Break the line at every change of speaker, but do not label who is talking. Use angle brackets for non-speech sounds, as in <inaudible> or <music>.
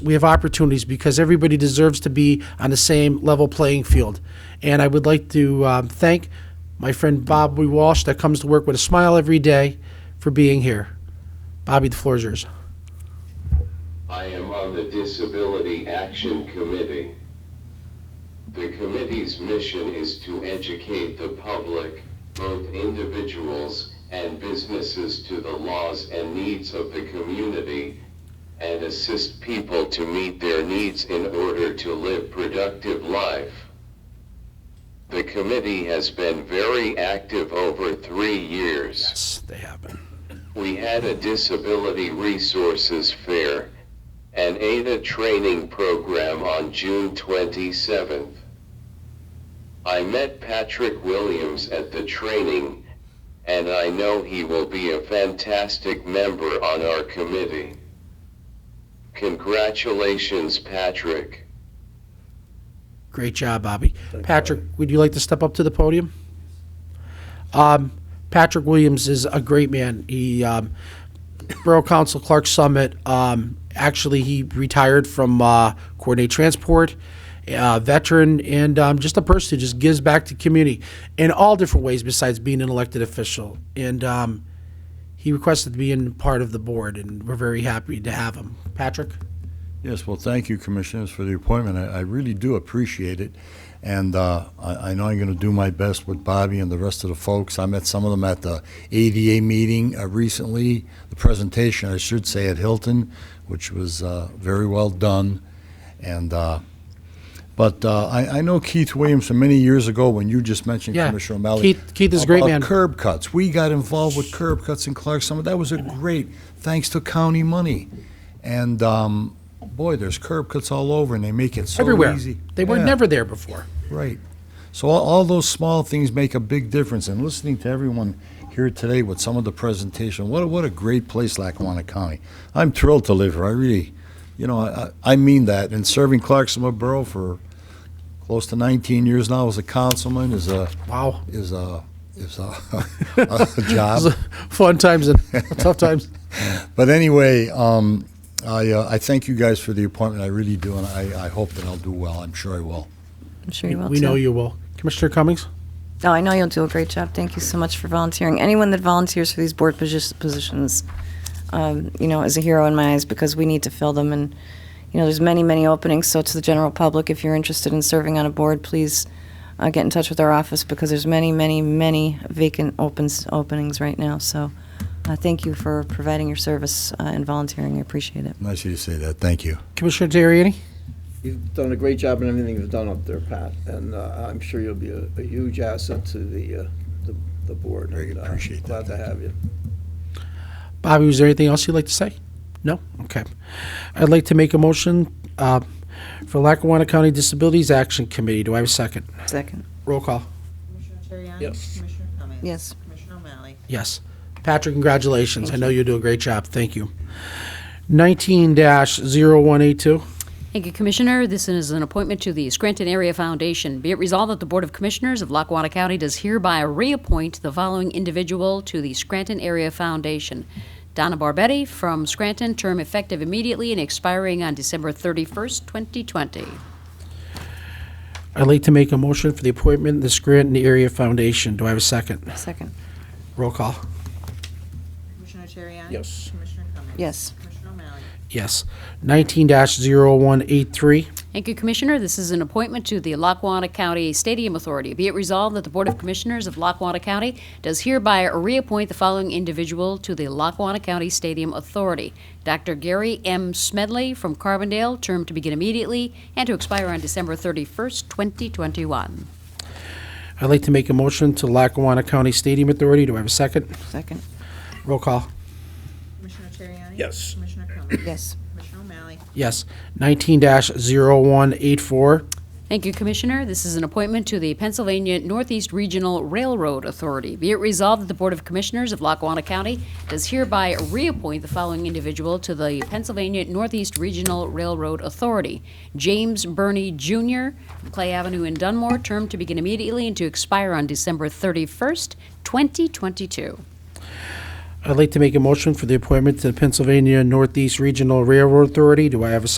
we have opportunities because everybody deserves to be on the same level playing field. And I would like to um, thank my friend Bobby Walsh that comes to work with a smile every day for being here. Bobby, the floor is yours.
I am on the Disability Action Committee. The committee's mission is to educate the public, both individuals and businesses to the laws and needs of the community, and assist people to meet their needs in order to live productive life. The committee has been very active over three years.
Yes, they have been.
We had a disability resources fair, an ADA training program on June 27th. I met Patrick Williams at the training, and I know he will be a fantastic member on our committee. Congratulations, Patrick.
Great job, Bobby. Patrick, would you like to step up to the podium? Um, Patrick Williams is a great man. He, um, Borough Council Clark Summit, um, actually, he retired from uh, Coordinate Transport, uh, veteran, and um, just a person who just gives back to community in all different ways besides being an elected official. And um, he requested being part of the board, and we're very happy to have him. Patrick?
Yes, well, thank you, Commissioners, for the appointment. I, I really do appreciate it. And uh, I, I know I'm going to do my best with Bobby and the rest of the folks. I met some of them at the ADA meeting uh, recently, the presentation, I should say, at Hilton, which was uh, very well done. And, uh, but uh, I, I know Keith Williams from many years ago when you just mentioned
Yeah.
Commissioner O'Malley.
Keith- Keith is a great
about
man.
Curb cuts. We got involved with curb cuts in Clark Summit. That was a great, thanks to county money. And, um, boy, there's curb cuts all over and they make it so
Everywhere.
easy.
They were
Yeah,
never there before.
Right. So all, all those small things make a big difference. And listening to everyone here today with some of the presentation, what a, what a great place Lackawanna County. I'm thrilled to live here. I really, you know, I, I I mean that. And serving Clark Summit Borough for close to 19 years now as a councilman is a,
Wow.
is a, is a, <laughs> a job.
Fun times <laughs> and tough times.
But anyway, um, I, uh, I thank you guys for the appointment. I really do, and I, I hope that I'll do well. I'm sure I will.
I'm sure you will
We
too.
know you will. Commissioner Cummings?
Oh, I know you'll do a great job. Thank you so much for volunteering. Anyone that volunteers for these board posi- positions, um, you know, is a hero in my eyes because we need to fill them. And you know, there's many, many openings. So to the general public, if you're interested in serving on a board, please uh, get in touch with our office because there's many, many, many vacant opens openings right now. So uh, thank you for providing your service uh, and volunteering. I appreciate it.
Nice of you to say that. Thank you.
Commissioner Terriani?
You've done a great job in everything you've done up there, Pat, and uh, I'm sure you'll be a a huge asset to the, uh, the- the board.
Very
and, uh,
appreciate that.
Glad to have you.
Bobby, was there anything else you'd like to say? No? Okay. I'd like to make a motion uh, for Lackawanna County Disabilities Action Committee. Do I have a second?
Second.
Roll call.
Commissioner Terriani?
Yes.
Commissioner Cummings?
Yes.
Commissioner O'Malley?
Yes. Patrick, congratulations. I know you do a great job. Thank you. 19-0182.
Thank you, Commissioner. This is an appointment to the Scranton Area Foundation. Be it resolved that the Board of Commissioners of Lackawanna County does hereby reappoint the following individual to the Scranton Area Foundation. Donna Barbetti from Scranton, term effective immediately and expiring on December 31st, 2020.
I'd like to make a motion for the appointment of the Scranton Area Foundation. Do I have a second?
Second.
Roll call.
Commissioner Terriani?
Yes.
Commissioner Cummings?
Yes.
Commissioner O'Malley?
Yes. 19-0183.
Thank you, Commissioner. This is an appointment to the Lackawanna County Stadium Authority. Be it resolved that the Board of Commissioners of Lackawanna County does hereby reappoint the following individual to the Lackawanna County Stadium Authority. Dr. Gary M. Smedley from Carbondale, term to begin immediately and to expire on December 31st, 2021.
I'd like to make a motion to Lackawanna County Stadium Authority. Do I have a second?
Second.
Roll call.
Commissioner Terriani?
Yes.
Commissioner Cummings?
Yes.
Commissioner O'Malley?
Yes. 19-0184.
Thank you, Commissioner. This is an appointment to the Pennsylvania Northeast Regional Railroad Authority. Be it resolved that the Board of Commissioners of Lackawanna County does hereby reappoint the following individual to the Pennsylvania Northeast Regional Railroad Authority. James Burney Jr., from Clay Avenue in Dunmore, term to begin immediately and to expire on December 31st, 2022.
I'd like to make a motion for the appointment to the Pennsylvania Northeast Regional Railroad Authority. Do I have a